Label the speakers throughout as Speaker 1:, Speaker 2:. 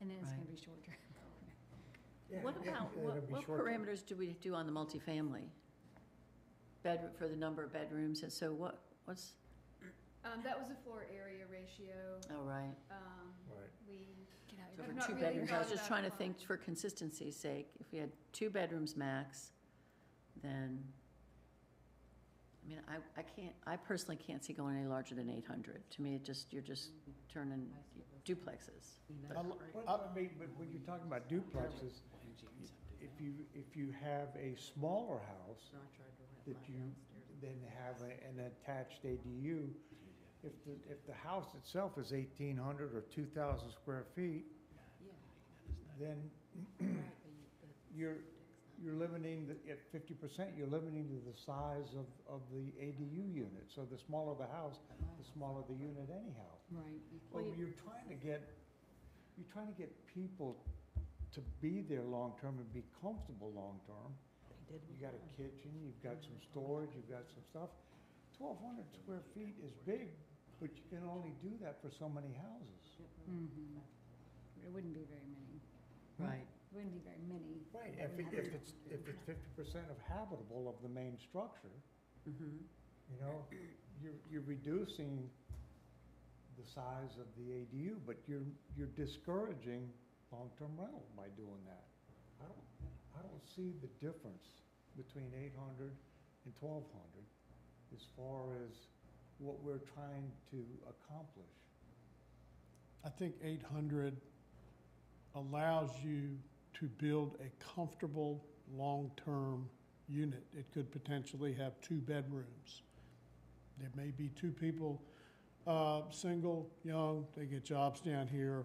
Speaker 1: And then it's gonna
Speaker 2: Right.
Speaker 1: be short term.
Speaker 3: Yeah,
Speaker 2: What
Speaker 3: yeah,
Speaker 2: about,
Speaker 3: it'll
Speaker 2: what
Speaker 3: be
Speaker 2: what
Speaker 3: short term.
Speaker 2: parameters do we do on the multifamily? Bed, for the number of bedrooms, and so what, what's,
Speaker 4: Um, that was a floor area ratio,
Speaker 2: oh, right.
Speaker 4: um,
Speaker 3: Right.
Speaker 4: we, you know,
Speaker 2: So
Speaker 4: I've
Speaker 2: for
Speaker 4: not
Speaker 2: two
Speaker 4: really
Speaker 2: bedrooms, I was
Speaker 4: thought
Speaker 2: just
Speaker 4: about
Speaker 2: trying to
Speaker 4: how-
Speaker 2: think for consistency's sake, if we had two bedrooms max, then, I mean, I, I can't, I personally can't see going any larger than eight hundred. To me, it just, you're just turning duplexes.
Speaker 3: A lo- I mean, but when you're talking about duplexes, if you, if you have a smaller house that you then have a- an attached ADU, if the, if the house itself is eighteen hundred or two thousand square feet, then you're, you're limiting, the- at fifty percent, you're limiting to the size of, of the ADU unit. So the smaller the house, the smaller the unit anyhow.
Speaker 1: Right.
Speaker 3: Well,
Speaker 2: Well, you-
Speaker 3: you're trying to get, you're trying to get people to be there long-term and be comfortable long-term. You got a kitchen, you've got some storage, you've got some stuff. Twelve hundred square feet is big, but you can only do that for so many houses.
Speaker 1: Mhm. It wouldn't be very many.
Speaker 2: Right.
Speaker 1: It wouldn't be very many.
Speaker 3: Right, if, it- if it's, if it's fifty percent of habitable of the main structure,
Speaker 2: Mm-hmm.
Speaker 3: you know, you're, you're reducing the size of the ADU, but you're, you're discouraging long-term rental by doing that. I don't, I don't see the difference between 800 and 1,200 as far as what we're trying to accomplish.
Speaker 5: I think eight hundred allows you to build a comfortable, long-term unit. It could potentially have two bedrooms. There may be two people, uh, single, young, they get jobs down here.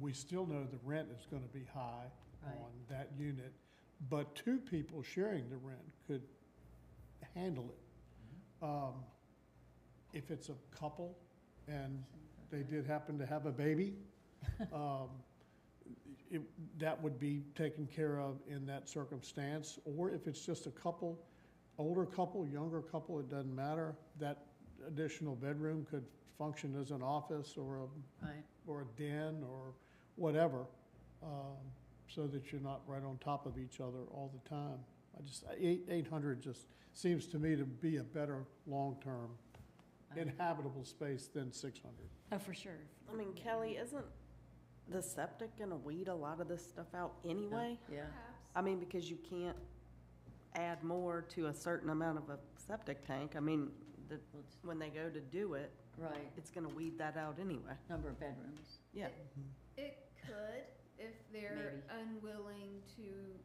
Speaker 5: We still know the rent is gonna be high
Speaker 2: Right.
Speaker 5: on that unit, but two people sharing the rent could handle it. Um, if it's a couple and they did happen to have a baby, um, it, that would be taken care of in that circumstance. Or if it's just a couple, older couple, younger couple, it doesn't matter, that additional bedroom could function as an office or a,
Speaker 2: Right,
Speaker 5: or a den or whatever, um, so that you're not right on top of each other all the time. I just, eight, eight hundred just seems to me to be a better long-term inhabitable space than six hundred.
Speaker 1: Oh, for sure.
Speaker 6: I mean, Kelly, isn't the septic gonna weed a lot of this stuff out anyway?
Speaker 2: yeah.
Speaker 4: Perhaps.
Speaker 6: I mean, because you can't add more to a certain amount of a septic tank. I mean, the,
Speaker 2: Well, it's-
Speaker 6: when they go to do it,
Speaker 2: Right,
Speaker 6: it's gonna weed that out anyway.
Speaker 2: number of bedrooms.
Speaker 6: Yeah.
Speaker 4: It could, if they're
Speaker 2: Maybe.
Speaker 4: unwilling to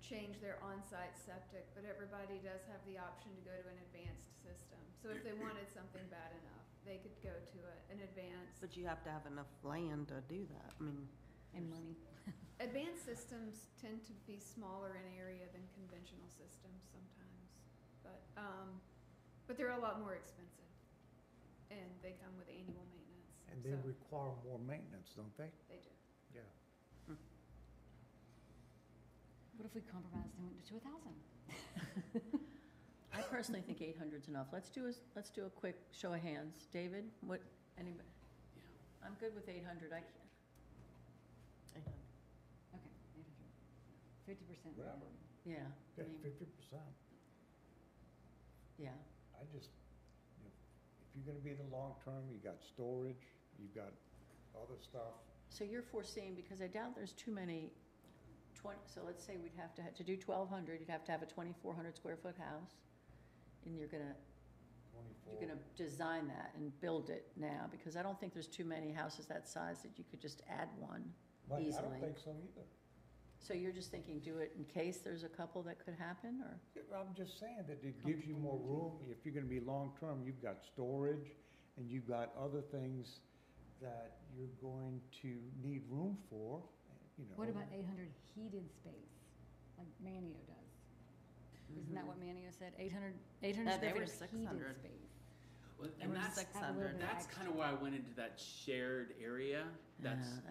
Speaker 4: change their on-site septic, but everybody does have the option to go to an advanced system. So if they wanted something bad enough, they could go to a, an advanced.
Speaker 6: But you have to have enough land to do that. I mean,
Speaker 1: And money.
Speaker 4: Advanced systems tend to be smaller in area than conventional systems sometimes, but, um, but they're a lot more expensive. And they come with annual maintenance,
Speaker 3: And
Speaker 4: so
Speaker 3: they require more maintenance, don't they?
Speaker 4: they do.
Speaker 3: Yeah.
Speaker 1: What if we compromised and went to a thousand?
Speaker 2: I personally think 800's enough. Let's do a, let's do a quick show of hands. David, what, anybody? I'm good with 800, I can't.
Speaker 1: Okay, eight hundred. Fifty percent.
Speaker 3: Whatever.
Speaker 2: Yeah,
Speaker 3: Yeah,
Speaker 1: mean-
Speaker 3: fifty percent.
Speaker 2: yeah,
Speaker 3: I just, you know, if you're gonna be in the long term, you got storage, you've got other stuff.
Speaker 2: so you're foreseeing, because I doubt there's too many twenty, so let's say we'd have to, ha- to do twelve hundred, you'd have to have a twenty-four hundred square foot house, and you're gonna, you're gonna design that and build it now, because I don't think there's too many houses that size that you could just add one.
Speaker 3: Right, I
Speaker 2: easily.
Speaker 3: don't think so either.
Speaker 2: So you're just thinking, do it in case there's a couple that could happen, or?
Speaker 3: I'm just saying that it gives you more room, if you're gonna be long-term, you've got storage, and you've got other things that you're going to need room for, you know.
Speaker 1: What about eight hundred heated space, like Manio does? Isn't that what Manio said? Eight hundred, eight hundred
Speaker 6: No, they
Speaker 1: square
Speaker 6: were
Speaker 1: feet of heated
Speaker 6: 600.
Speaker 1: space.
Speaker 7: Well,
Speaker 1: And
Speaker 7: and
Speaker 1: we're
Speaker 7: that's
Speaker 1: just- have a little bit
Speaker 7: that's
Speaker 1: extra.
Speaker 7: kind of why I went into that shared area. That's
Speaker 2: Yeah,